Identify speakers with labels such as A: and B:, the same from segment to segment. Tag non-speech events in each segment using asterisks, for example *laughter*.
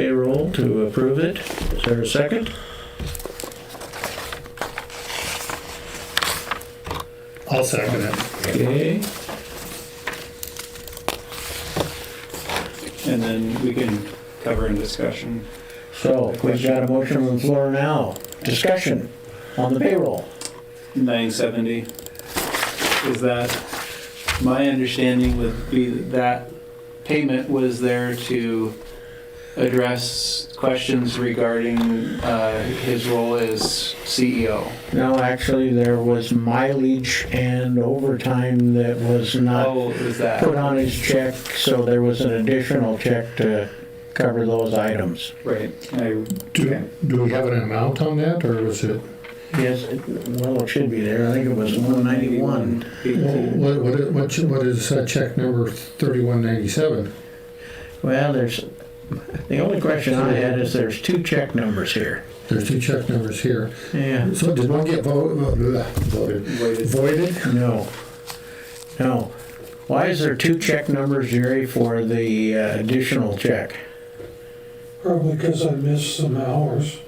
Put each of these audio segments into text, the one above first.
A: payroll to approve it. Is there a second?
B: I'll second it.
A: Okay,
C: And then we can cover in discussion.
A: so we've got a motion on the floor now. Discussion on the payroll.
C: 970, is that, my understanding would be that that payment was there to address questions regarding uh, his role as E CEO.
A: No, actually, there was mileage and overtime that was not
C: How is that?
A: put on his check, so there was an additional check to cover those items.
C: Right. I- okay.
B: Do, do we have an amount on that, or was it,
A: Yes, it- well, it should be there. I think it was one ninety-one.
B: what, what, what- what is uh, check number thirty-one ninety-seven?
A: Well, there's, the only question I had is there's two check numbers here.
B: There's two check numbers here.
A: Yeah.
B: So did one get vo- vo- blah, voted,
C: Wait,
B: voided?
A: No, no. Why is there two check numbers, Jerry, for the uh, additional check?
D: Probably because I missed some hours.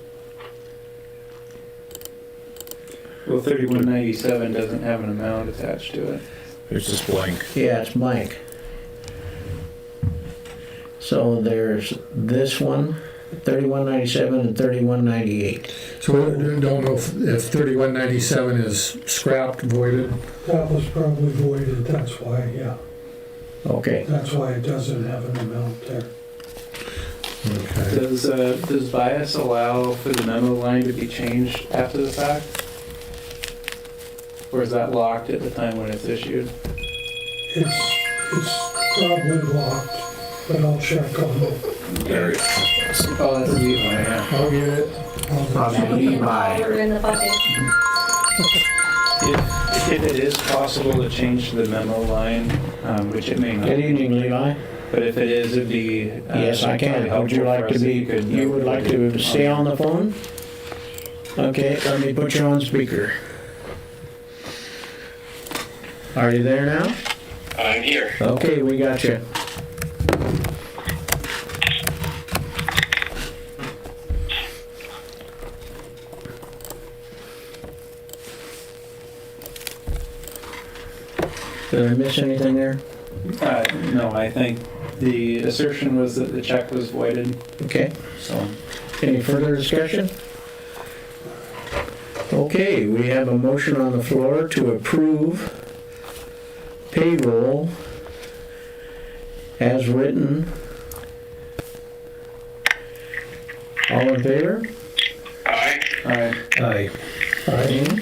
C: Well, 3197 doesn't have an amount attached to it.
E: It's just blank.
A: Yeah, it's blank. So there's this one, 3197 and 3198.
B: So we don't know if, if thirty-one ninety-seven is scrapped, voided?
D: That was probably voided, that's why, yeah,
A: Okay.
D: that's why it doesn't have an amount there.
B: Okay.
C: Does, uh, does bias allow for the memo line to be changed after the fact? Or is that locked at the time when it's issued?
D: It's, it's probably locked, but I'll check on it.
E: There it is.
C: Oh, that's the, yeah.
B: I'll get it.
F: We're in the bucket.
C: If, if it is possible to change the memo line, um, which it may
A: Good
C: not,
A: evening, Levi.
C: but if it is, it'd be. uh,
A: Yes, I
C: probably
A: can. Would you
C: helpful
A: like
C: for
A: to
C: us if
A: be,
C: could-
A: you would like to stay on the phone? Okay, let me put you on speaker. Are you there now?
G: I'm here.
A: Okay, we got you. Did I miss anything there?
C: Uh, no, I think the assertion was that the check was voided,
A: Okay,
C: so.
A: any further discussion? Okay, we have a motion on the floor to approve payroll as written. All in favor?
G: Aye.
C: Alright,
A: Aye.
B: Aye,
A: Aye.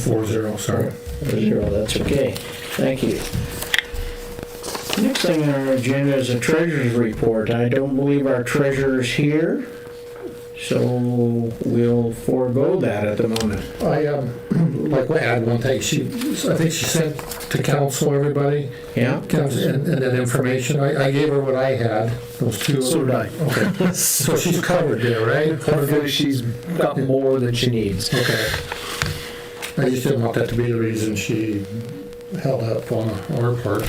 B: four zero, sorry.
A: Four zero, that's okay. Thank you. Next thing on our agenda is a treasurer's report. I don't believe our treasurer's here, so we'll forego that at the moment.
B: I, um, *clears throat* like, I had one thing, she, I think she sent to council, everybody,
A: Yeah?
B: Comes in, and that information, I, I gave her what I had, those two.
E: So did I.
B: *laughs* Okay, so she's *laughs* covered there, right?
E: Hopefully she's got more than she needs.
B: Okay. I just didn't want that to be the reason she held up on our part.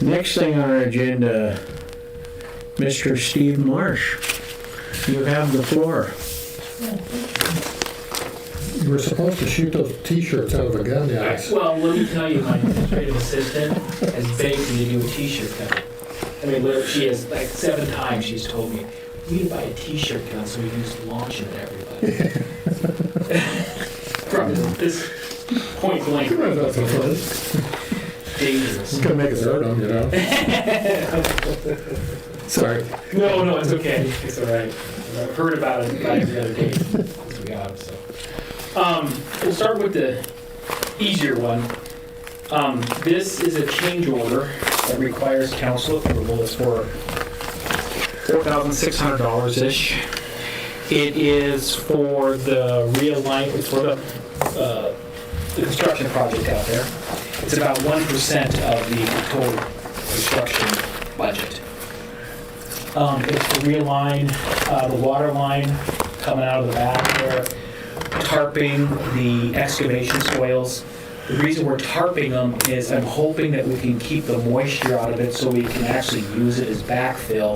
A: Next thing on our agenda, Mr. Steve Marsh. You have the floor.
B: You were supposed to shoot those t-shirts out of a gun, guys.
H: Well, let me tell you, my administrative assistant has begged me to do a t-shirt cut. I mean, literally, she has, like, seven times she's told me, we need to buy a t-shirt gun so we can just launch it at everybody. From this point blank,
B: It's
H: dangerous.
B: gonna make us hurt them, you know?
E: *laughs*
B: Sorry.
H: No, no, it's okay. It's all right. I heard about it about it the other day. So we got it, so. Um, we'll start with the easier one. Um, this is a change order that requires council approval. It's for four thousand six hundred dollars ish. It is for the realignment for the uh, the construction project out there. It's about one percent of the total construction budget. Um, It's to realign uh, the water line coming out of the back there, tarping the excavation soils, The reason we're tarping them is I'm hoping that we can keep the moisture out of it so we can actually use it as backfill